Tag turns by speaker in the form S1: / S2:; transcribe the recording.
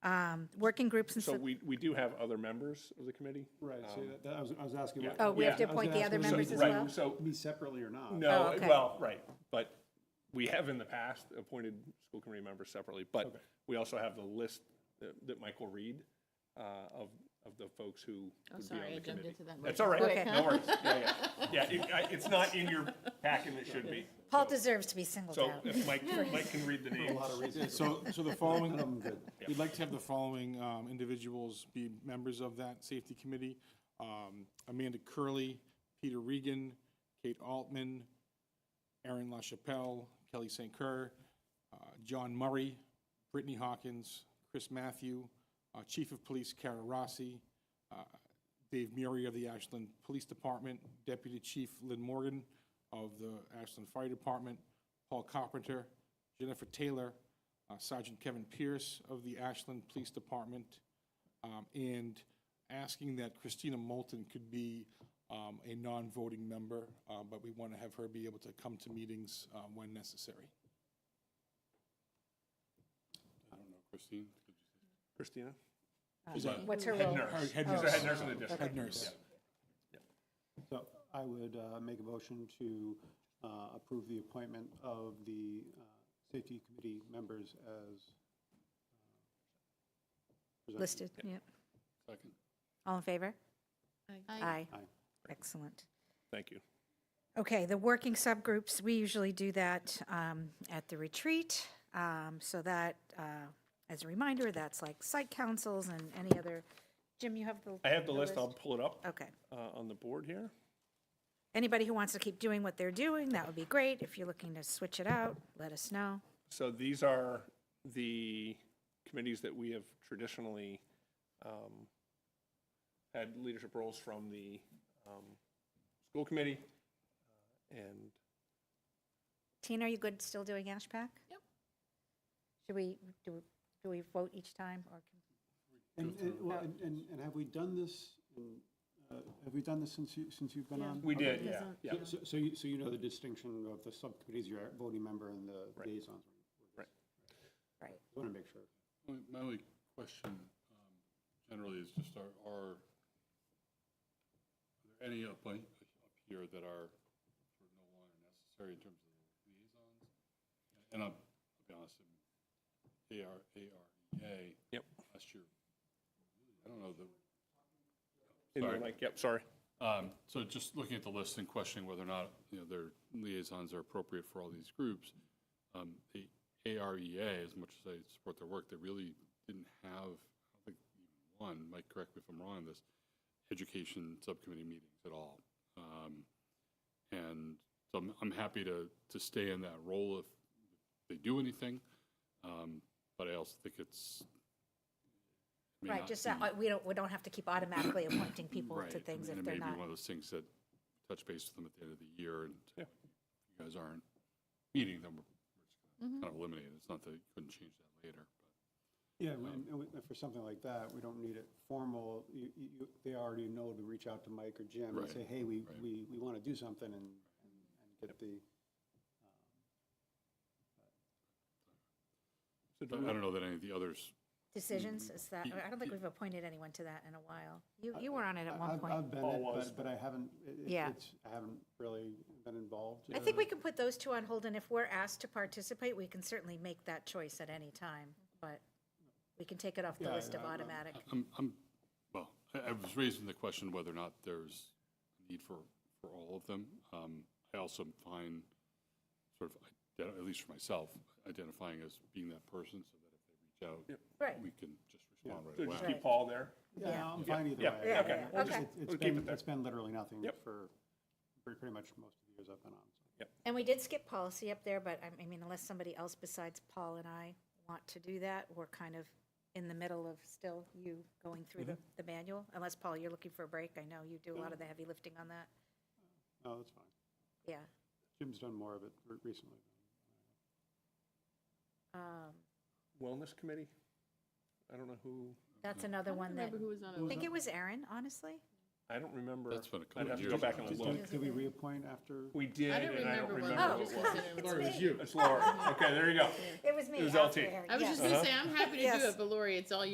S1: um, working groups and
S2: So
S1: stuff.
S2: we, we do have other members of the committee?
S3: Right, so that- that, I was, I was
S2: Um,
S3: asking.
S2: yeah.
S3: what-
S1: Oh, we have
S2: yeah,
S1: to
S2: I was
S1: appoint
S3: gonna
S1: the
S3: ask
S1: other
S3: whether
S2: So-
S1: members as
S3: it's
S2: right,
S1: well?
S2: So,
S3: Me separately or not?
S1: Oh,
S2: no,
S1: okay.
S2: well, right, but we have in the past appointed school committee members separately, but we also have the list that that Mike will read uh, of, of the folks who would be
S4: Oh, sorry,
S2: on
S4: I
S2: the
S4: jumped
S2: committee.
S4: into that
S2: That's all
S4: motion
S2: right,
S1: quick.
S2: no worries, yeah, yeah, yeah, it- I- it's not in your packet, and it should be.
S1: Paul deserves to be singled
S2: So
S1: out.
S2: if Mike, Mike can read the names.
S5: Yeah, So, so the following,
S3: I'm good.
S5: we'd like to have the following um, individuals be members of that safety committee. Um, Amanda Curley, Peter Regan, Kate Altman, Aaron LaChapelle, Kelly St. Kerr, uh, John Murray, Brittany Hawkins, Chris Matthew, uh, Chief of Police Kara Rossi, uh, Dave Murray of the Ashland Police Department, Deputy Chief Lynn Morgan of the Ashland Fire Department, Paul Carpenter, Jennifer Taylor, uh, Sergeant Kevin Pierce of the Ashland Police Department, um, and asking that Christina Moulton could be um, a non-voting member, uh, but we want to have her be able to come to meetings uh, when necessary.
S6: Christine? could you-
S2: Christina?
S1: What's her role?
S5: Her head
S2: She's the
S5: nurse. Oh,
S2: head nurse in the district.
S5: Head nurse.
S3: So I would uh, make a motion to uh, approve the appointment of the uh, safety committee members as. uh, presented.
S1: Listed, yep.
S6: Second.
S1: All in favor?
S4: Aye.
S1: Aye.
S3: Aye.
S1: Excellent.
S2: Thank you.
S1: Okay, the working subgroups, we usually do that um, at the retreat. um, So that, uh, as a reminder, that's like site councils and any other, Jim, you have the.
S2: I have the list, I'll pull it up
S1: Okay.
S2: uh, on the board here.
S1: Anybody who wants to keep doing what they're doing, that would be great. If you're looking to switch it out, let us know.
S2: So these are the committees that we have traditionally um, had leadership roles from the um, school committee. uh, And
S1: Tina, are you good still doing Ashpac?
S4: Yep.
S1: Should we, do, do we vote each time or? can-
S3: And, and, well, and- and, and have we done this, in, uh, have we done this since you, since you've been
S4: Yeah.
S3: on?
S2: we
S3: Okay.
S2: did, yeah,
S4: Doesn't-
S2: yeah.
S3: So, so you, so you know the distinction of the subcommittees, your voting member and the
S2: Right.
S3: liaisons?
S2: Right.
S1: Right.
S3: Want to make sure.
S6: My my only question um, generally is just are, are are there any up like, up here that are sort of no longer necessary in terms of the liaisons? And I'll I'll be honest, I'm AR, AREA.
S2: Yep.
S6: E Last year, I don't know the
S2: In the
S6: Sorry.
S2: mic, Yep, sorry.
S6: Um, So just looking at the list and questioning whether or not, you know, their liaisons are appropriate for all these groups, um, the AREA, as much as I support their work, they really didn't have, I don't think, even one, Mike, correct me if I'm wrong on this, education subcommittee meetings at all. Um, And so I'm, I'm happy to, to stay in that role if they do anything, um, but I also think it's. may
S1: Right,
S6: not
S1: just
S6: be-
S1: that, uh, we don't, we don't have to keep automatically appointing people
S6: Right,
S1: to things
S6: and
S1: if
S6: it
S1: they're
S6: may
S1: not.
S6: be one of those things that touch base with them at the end of the year, and if you guys aren't meeting them, we're
S1: Mm-hmm.
S6: just kind of eliminated. It's not that you couldn't change that later,
S3: Yeah, we- and we- and for something like that, we don't need it formal. You, you, you- they already know to reach out to Mike or Jim and
S6: Right,
S3: say, hey, we,
S6: right.
S3: we, we want to do something and, and and get the,
S2: So do
S6: but
S2: we-
S6: I don't know that any of the others,
S1: Decisions, is that, I don't think we've appointed anyone to that in a while. You, you were on it at
S3: I-
S1: one
S3: I've,
S1: point.
S3: I've been,
S2: Paul
S3: it,
S2: was.
S3: but, but I haven't, it- it-
S1: Yeah.
S3: it's, I haven't really been involved. Uh,
S1: I think we can put those two on hold, and if we're asked to participate, we can certainly make that choice at any time, but we can take it off the
S3: Yeah,
S1: list of
S3: yeah, I'm-
S1: automatic.
S6: I'm, I'm, well, I, I was raising the question whether or not there's a need for, for all of them. Um, I also find sort of, ident- at least for myself, identifying as being that person so that if they reach
S1: Right,
S6: out, we can just respond
S2: so
S6: right
S2: just
S6: away.
S2: keep Paul there.
S3: Yeah, I'm fine either way.
S2: yeah,
S3: I-
S2: okay.
S3: I-
S1: We'll just-
S3: it's- it's
S2: we'll keep
S3: been-
S2: it there.
S3: It's been literally nothing
S2: Yep.
S3: for, for pretty much most of the years I've been on. so.
S1: and we did skip policy up there, but I- I mean, unless somebody else besides Paul and I want to do that, we're kind of in the middle of still you going through the, the manual, unless, Paul, you're looking for a break. I know you do a lot of the heavy lifting on that,
S3: No, that's fine.
S1: yeah.
S3: Jim's done more of it re- recently.
S1: Um,
S2: Wellness committee? I don't know who,
S1: That's another one that,
S4: Remember who was on
S1: I
S4: it?
S1: think it was Aaron, honestly.
S2: I don't remember.
S6: That's been a couple
S2: I'd
S6: of
S2: have to
S6: years
S2: go back
S6: ago.
S2: and
S3: Did-
S2: look.
S3: Did did we reappoint after?
S2: We did,
S4: I don't
S2: and I don't
S4: remember
S2: remember
S4: Wellness.
S2: who it
S4: Oh.
S2: was.
S4: It's
S6: Laura, it's
S1: me.
S6: you.
S2: It's Laura. Okay, there you go.
S1: It was me.
S2: It was
S1: after
S2: LT.
S1: Aaron,
S4: I was
S1: yes.
S4: just gonna say, I'm happy to do
S1: Yes.
S4: it, but Lori, it's all you.